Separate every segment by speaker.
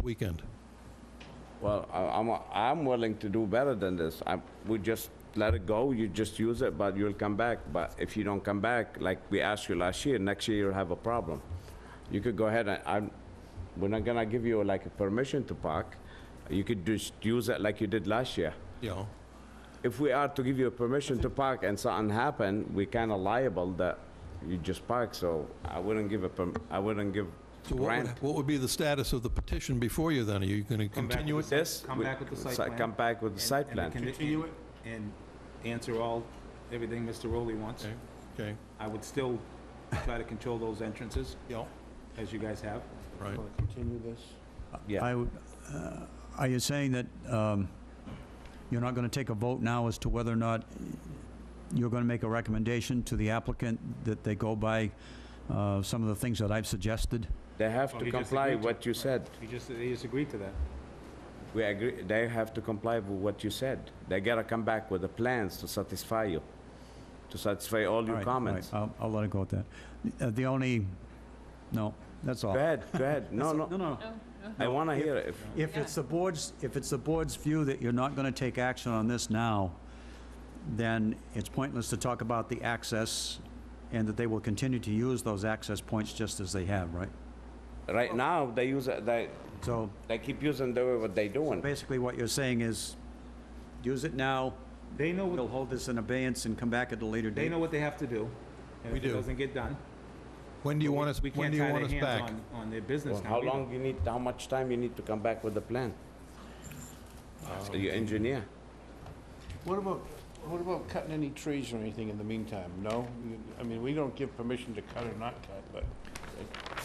Speaker 1: weekend?
Speaker 2: Well, I- I'm, I'm willing to do better than this. I, we just let it go, you just use it, but you'll come back. But if you don't come back, like we asked you last year, next year you'll have a problem. You could go ahead and, I'm, we're not gonna give you like a permission to park. You could just use it like you did last year.
Speaker 1: Yeah.
Speaker 2: If we are to give you a permission to park and something happen, we kinda liable that you just park, so I wouldn't give a perm, I wouldn't give
Speaker 1: So what would,
Speaker 2: grant.
Speaker 1: what would be the status of the petition before you then? Are you going to
Speaker 3: back
Speaker 1: continue it?
Speaker 3: with
Speaker 2: This.
Speaker 3: Come
Speaker 2: we-
Speaker 3: back with the site
Speaker 2: si-
Speaker 3: plan.
Speaker 2: Come back with the
Speaker 3: And-
Speaker 2: site
Speaker 3: and
Speaker 2: plan.
Speaker 3: condi-
Speaker 4: Continue it.
Speaker 3: And answer all, everything Mr. Rowley wants.
Speaker 1: Okay, okay,
Speaker 3: I would still try to control those entrances,
Speaker 1: yeah,
Speaker 3: as you guys have.
Speaker 1: right.
Speaker 4: Continue this.
Speaker 2: Yeah.
Speaker 5: I would, uh, are you saying that um, you're not going to take a vote now as to whether or not you're going to make a recommendation to the applicant that they go by uh, some of the things that I've suggested?
Speaker 2: They have
Speaker 3: Well,
Speaker 2: to
Speaker 3: he just
Speaker 2: comply
Speaker 3: agreed to
Speaker 2: what
Speaker 3: it.
Speaker 2: you
Speaker 3: Right.
Speaker 2: said.
Speaker 3: You just, they just agreed to that.
Speaker 2: We agree, they have to comply with what you said. They gotta come back with the plans to satisfy you, to satisfy all
Speaker 5: All
Speaker 2: your
Speaker 5: right, all right,
Speaker 2: comments.
Speaker 5: I'll, I'll let it go at that. Uh, The only, no, that's all.
Speaker 2: Go ahead, go ahead. No,
Speaker 5: No,
Speaker 2: no,
Speaker 5: no.
Speaker 2: I wanna hear it. If-
Speaker 5: If it's the board's, if it's the board's view that you're not going to take action on this now, then it's pointless to talk about the access and that they will continue to use those access points just as they have, right?
Speaker 2: Right now, they use, it- they,
Speaker 5: So
Speaker 2: they keep using the way what they doing.
Speaker 5: basically what you're saying is, use it now,
Speaker 3: They know,
Speaker 5: we'll
Speaker 3: what
Speaker 5: hold this in abeyance and come back at a later
Speaker 3: they
Speaker 5: date.
Speaker 3: know what they have to do.
Speaker 1: We
Speaker 3: And if it
Speaker 1: do.
Speaker 3: doesn't get done.
Speaker 1: When do you
Speaker 3: we-
Speaker 1: want us,
Speaker 3: we
Speaker 1: when
Speaker 3: can't
Speaker 1: do you
Speaker 3: tie
Speaker 1: want
Speaker 3: their
Speaker 1: us
Speaker 3: hands
Speaker 1: back?
Speaker 3: on- On their business now.
Speaker 2: How
Speaker 3: either.
Speaker 2: long you need, how much time you need to come back with the plan? So Your engineer.
Speaker 4: What about, what about cutting any trees or anything in the meantime? No? You- I mean, we don't give permission to cut or not cut, but,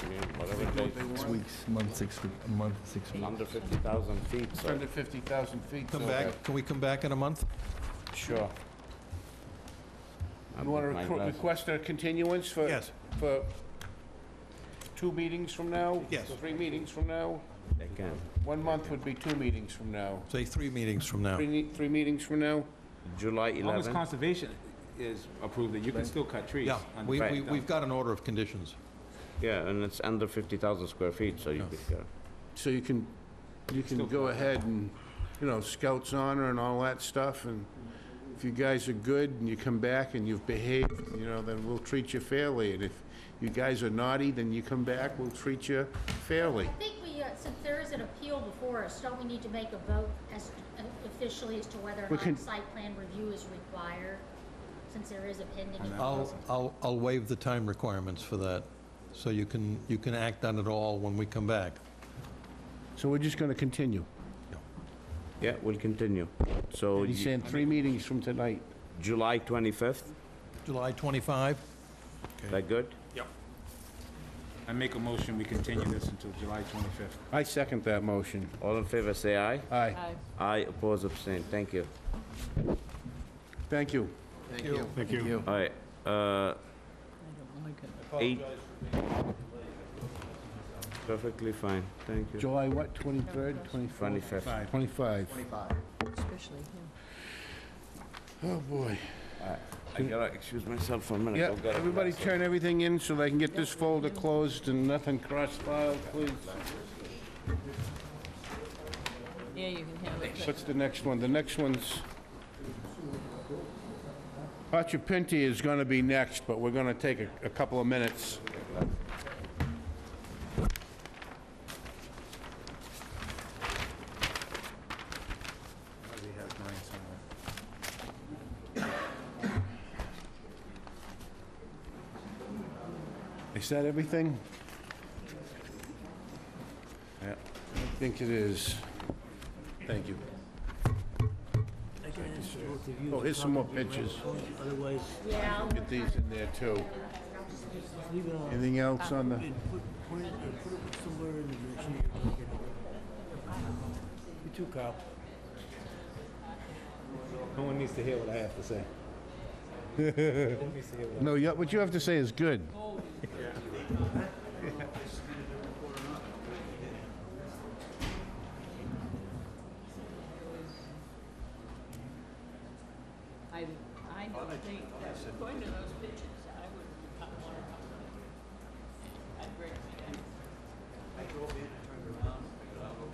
Speaker 4: I mean, whatever they
Speaker 6: Six
Speaker 4: want.
Speaker 6: weeks, month, six, week- a month, six weeks.
Speaker 2: Under 50,000 feet, so,
Speaker 4: Under 50,000 feet.
Speaker 1: Come
Speaker 4: so,
Speaker 1: back, can we come back in a month?
Speaker 2: sure.
Speaker 4: uh, You want
Speaker 2: My
Speaker 4: to
Speaker 2: glasses.
Speaker 4: request a continuance for?
Speaker 1: Yes.
Speaker 4: For two meetings from now?
Speaker 1: Yes.
Speaker 4: Three meetings from now?
Speaker 2: They can.
Speaker 4: One month would be two meetings from now.
Speaker 1: Say three meetings from now.
Speaker 4: Three, ne- three meetings from now?
Speaker 2: July
Speaker 3: As long as
Speaker 2: 11.
Speaker 3: conservation is approved, that you can still cut trees.
Speaker 1: Yeah,
Speaker 3: on-
Speaker 1: we,
Speaker 2: Right.
Speaker 1: we, we've got an order of conditions.
Speaker 2: Yeah, and it's under 50,000 square feet, so you could go.
Speaker 4: So you can, you can go ahead and, you know, scouts honor and all that stuff, and if you guys are good and you come back and you've behaved, you know, then we'll treat you fairly, and if you guys are naughty, then you come back, we'll treat you fairly.
Speaker 7: I think we, uh, since there is an appeal before us, don't we need to make a vote as uh, officially as to whether
Speaker 4: We
Speaker 7: or
Speaker 4: can-
Speaker 7: not site plan review is required? Since there is a pending.
Speaker 1: I'll, I'll, I'll waive the time requirements for that, so you can, you can act on it all when we come back.
Speaker 4: So we're just gonna continue.
Speaker 2: Yeah, we'll continue. So
Speaker 4: He's
Speaker 2: you-
Speaker 4: saying three meetings from tonight.
Speaker 2: July 25th,
Speaker 1: July 25?
Speaker 2: that good?
Speaker 3: I make a motion, we continue this until July 25th.
Speaker 4: I second that motion.
Speaker 2: All in favor, say aye.
Speaker 4: Aye,
Speaker 2: Aye, oppose, abstain, thank you.
Speaker 4: thank you.
Speaker 6: Thank you. Thank you.
Speaker 2: All right, uh, eight. Perfectly fine, thank you.
Speaker 4: July what, 23rd, 24th?
Speaker 2: 25th.
Speaker 4: 25.
Speaker 8: Especially him.
Speaker 4: Oh, boy.
Speaker 2: I gotta excuse myself for a minute.
Speaker 4: Yeah,
Speaker 2: I've got a
Speaker 4: everybody
Speaker 2: class.
Speaker 4: turn everything in so they can get this folder closed and nothing cross-filed, please.
Speaker 8: Yeah, you can have it.
Speaker 4: What's the next one? The next one's... Hachapinti is gonna be next, but we're gonna take a, a couple of minutes.
Speaker 3: Probably has mine somewhere.
Speaker 4: Is that everything? Yeah, I think it is. Thank you. Oh, here's some more pictures.
Speaker 9: Otherwise,
Speaker 7: Yeah,
Speaker 4: Get these in there, too.
Speaker 9: leave it on
Speaker 4: Anything else on the...
Speaker 9: and put, point it, and put it somewhere in the direction you're talking about. You too, Kyle.
Speaker 3: No one needs to hear what I have to say.
Speaker 4: No, you- what you have to say is good.
Speaker 8: I, I don't think that's the point of those pictures.